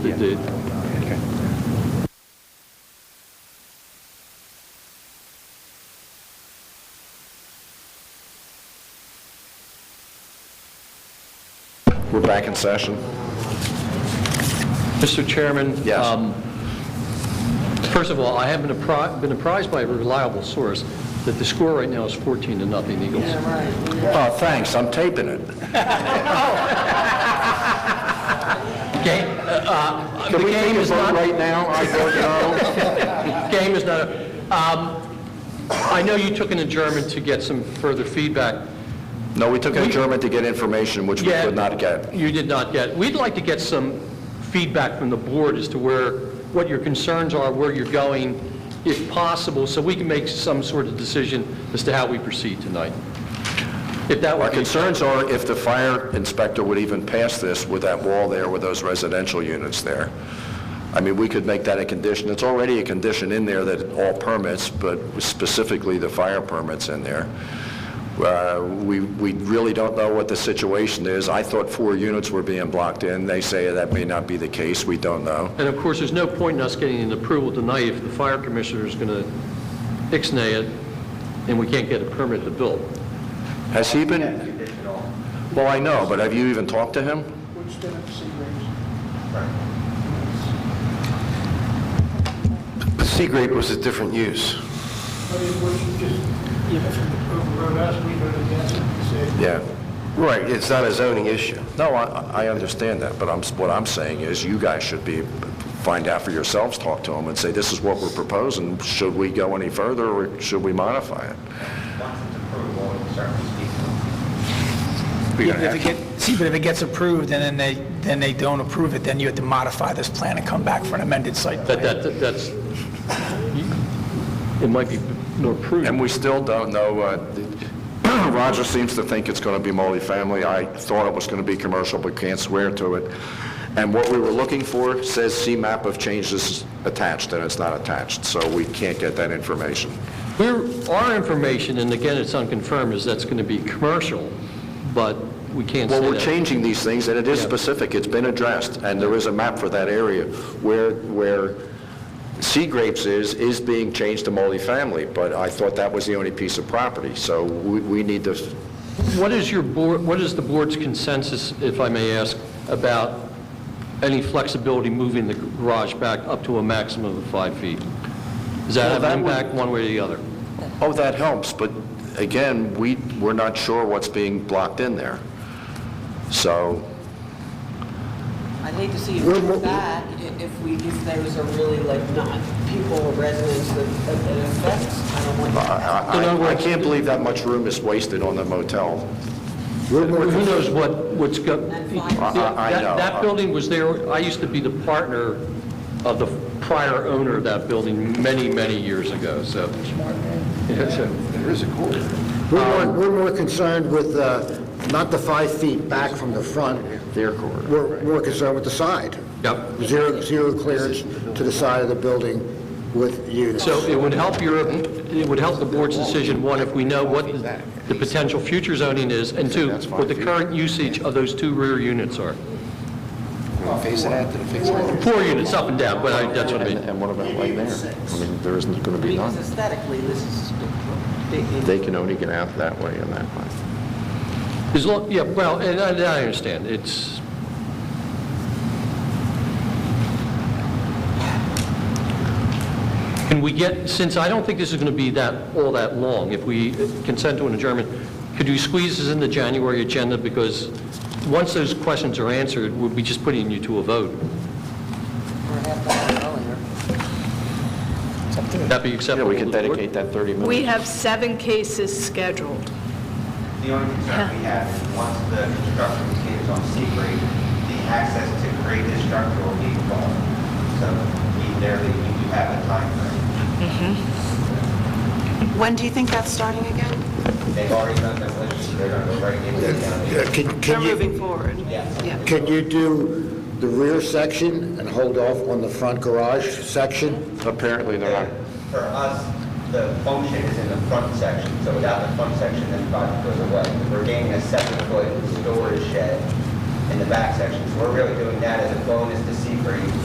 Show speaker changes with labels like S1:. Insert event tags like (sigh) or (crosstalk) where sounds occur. S1: It did.
S2: We're back in session.
S1: Mr. Chairman?
S2: Yes.
S1: um, First of all, I have been appri- been apprised by a reliable source that the score right now is 14 to nothing Eagles.
S2: Oh, thanks, I'm taping it.
S1: Game, uh, the
S2: Can we take
S1: game
S2: a
S1: is
S2: vote
S1: not,
S2: right now? I vote no.
S1: game is not, um, I know you took an adjournment to get some further feedback.
S2: (laughs) No, we took an adjournment to get information, which we
S1: Yeah,
S2: could not get.
S1: You did not get. We'd like to get some feedback from the board as to where, what your concerns are, where you're going, if possible, so we can make some sort of decision as to how we proceed tonight. If that
S2: Our
S1: would be...
S2: concerns are if the fire inspector would even pass this with that wall there, with those residential units there. I mean, we could make that a condition. It's already a condition in there that all permits, but specifically the fire permits in there. Uh, We we really don't know what the situation is. I thought four units were being blocked in. They say that may not be the case. We don't know.
S1: And of course, there's no point in us getting an approval tonight if the fire commissioner is going to ixnay it and we can't get a permit to build.
S2: Has he been? Well, I know, but have you even talked to him?
S3: which then it's raised.
S4: Seagrape was a different use.
S3: But it was just, you know, wrote us, we voted against it, we said,
S2: Yeah.
S4: Right. It's not a zoning issue.
S2: No, I, I understand that, but I'm, what I'm saying is you guys should be, find out for yourselves, talk to him and say, this is what we're proposing. Should we go any further or should we modify it?
S5: Once it's approved, we'll certainly speak to it.
S2: We're gonna
S6: Yeah, but if
S2: have
S6: it
S2: to-
S6: get- See, but if it gets approved and then they, then they don't approve it, then you have to modify this plan and come back for an amended site
S1: That,
S6: plan.
S1: that, that's, it might be more prudent.
S2: And we still don't know, uh, (clears throat) Roger seems to think it's going to be multifamily. I thought it was going to be commercial, but can't swear to it. And what we were looking for says C-map of changes attached, and it's not attached, so we can't get that information.
S1: We're, our information, and again, it's unconfirmed, is that's going to be commercial, but we can't say
S2: Well,
S1: that.
S2: we're changing these things, and it is specific, it's been addressed, and there is a map for that area. Where, where Sea Grapes is, is being changed to multifamily, but I thought that was the only piece of property, so we, we need to,
S1: What is your board, what is the board's consensus, if I may ask, about any flexibility moving the garage back up to a maximum of five feet? Does that
S2: Well,
S1: have an
S2: that would-
S1: impact one way or the other?
S2: oh, that helps, but again, we, we're not sure what's being blocked in there. So,
S7: I'd hate to see it go back if we, if those are really like not people or residents that that it affects. I don't want
S2: uh, I-
S7: that.
S1: In other
S2: I, I
S1: words-
S2: can't believe that much room is wasted on the motel.
S1: Who knows what, what's go...
S7: And five.
S2: I- I
S1: That-
S2: know.
S1: That building was there, I used to be the partner of the prior owner of that building many, many years ago, so... (laughs) Yeah, so-
S8: We're more, we're more concerned with, uh, not the five feet back from the front.
S2: Their corridor.
S8: We're more concerned with the side.
S1: Yep.
S8: Zero, zero clearance to the side of the building with units.
S1: So it would help your, it would help the board's decision, one, if we know what the the potential future zoning is, and two, what the current usage of those two rear units are.
S4: Face it out, fix it out.
S1: Four units up and down, but I- that's what I mean.
S2: And what about way there? I mean, there isn't going to be
S7: Because
S2: none.
S7: aesthetically, this is big.
S2: They can only get out that way and that way.
S1: As long, yeah, well, and I and I understand, it's, can we get, since I don't think this is going to be that, all that long, if we consent to an adjournment, could you squeeze this in the January agenda, because once those questions are answered, we'll be just putting you to a vote.
S7: Or half an hour earlier.
S1: Would that be
S2: Yeah,
S1: acceptable
S2: we
S1: to
S2: can
S1: the board?
S2: dedicate that 30 minutes.
S9: We have seven cases scheduled.
S5: The only concern we have is once the construction begins on C grade, the access to grade this structure will be gone. So we there, we do have a timeframe.
S9: Mm-hmm. When do you think that's starting again?
S5: They've already done demolition, they're gonna go right into the
S8: Uh,
S5: county.
S8: Can,
S9: They're
S8: can you,
S9: moving forward.
S5: Yes.
S9: Yeah.
S8: can you do the rear section and hold off on the front garage section?
S2: Apparently, they're not.
S5: For us, the function is in the front section, so without the front section, then the project goes away. We're gaining a seven-foot storage shed in the back section. So we're really doing that as a bonus to Seagreen